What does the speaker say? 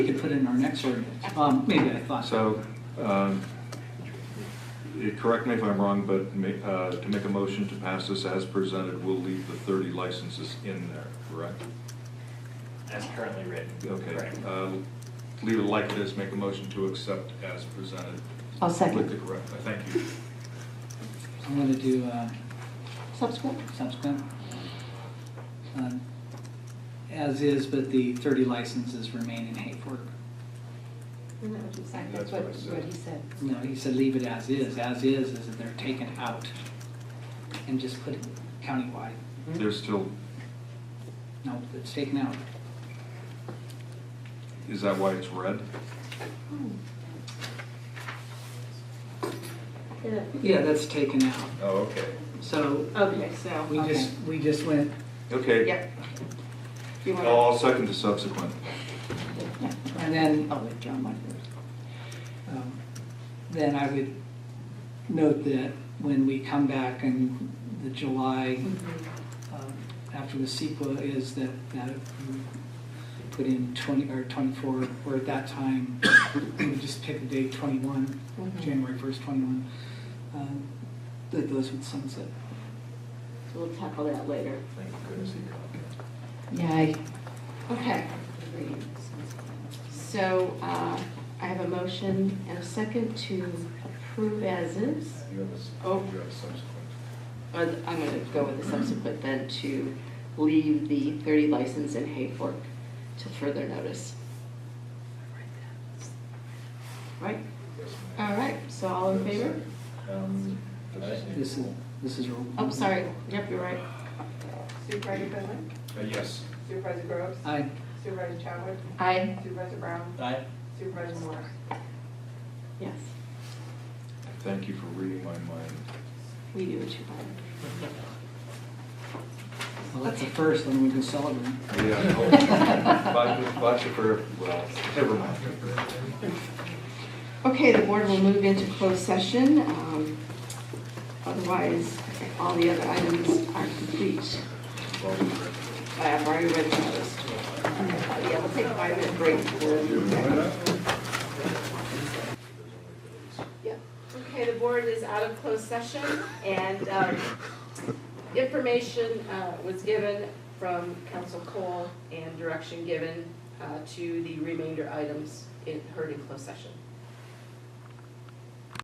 We could put it in our next ordinance. Um, maybe I thought. So, um, you- correct me if I'm wrong, but ma- uh, to make a motion to pass this as presented, we'll leave the 30 licenses in there, correct? As currently written. Okay. Correct. uh, Leave it like it is, make a motion to accept as presented. I'll second. With the correct, uh, thank you. I'm gonna do, uh, Subsequent? subsequent. um, As is, but the thirty licenses remain in Hayford. Isn't that what you said? That's what I said. he said. No, he said leave it as is. As is, is that they're taken out and just put it countywide. There's still, No, it's taken out. is that why it's red? Yeah. Yeah, that's taken out. Oh, okay. So Okay, so, we okay. just, we just went, Okay. Yep. You want to- I'll I'll second the subsequent. Yeah. and then I'll let John like this. Um, Then I would note that when we come back in the July, um, after the CEQA is that, that we put in 20, or 24, or at that time, we just pick a date, 21, Mhm. January 1st, 21, um, that those would sunset. We'll tackle that later. Thank goodness he caught Yay. Okay. So uh, I have a motion and a second to approve as is. You have a, s- Oh. you have a subsequent. Or Uh, I'm going to go with the subsequent then to leave the 30 license in Hayfork to further notice. Right? Yes, ma'am. All right, so all in favor? Uh. Um, This is, this is. a- Oh, sorry, yep, you're right. Supervisor Finley, uh, Yes. Supervisor Groves, Aye. Supervisor Chadwick, Aye. Supervisor Brown, Aye. Supervisor Moore. Yes, Thank you for reading my mind. we do what you want. Well, that's the first, and we can celebrate. Yeah. Bye, bye for, well, never mind. Okay, the board will move into closed session. Um, Otherwise, all the other items are complete. I have already read the list. Yeah, we'll take a five-minute break for. Yep. Okay, the board is out of closed session and um, information uh, was given from Council Cole and direction given uh, to the remainder items in, heard in closed session.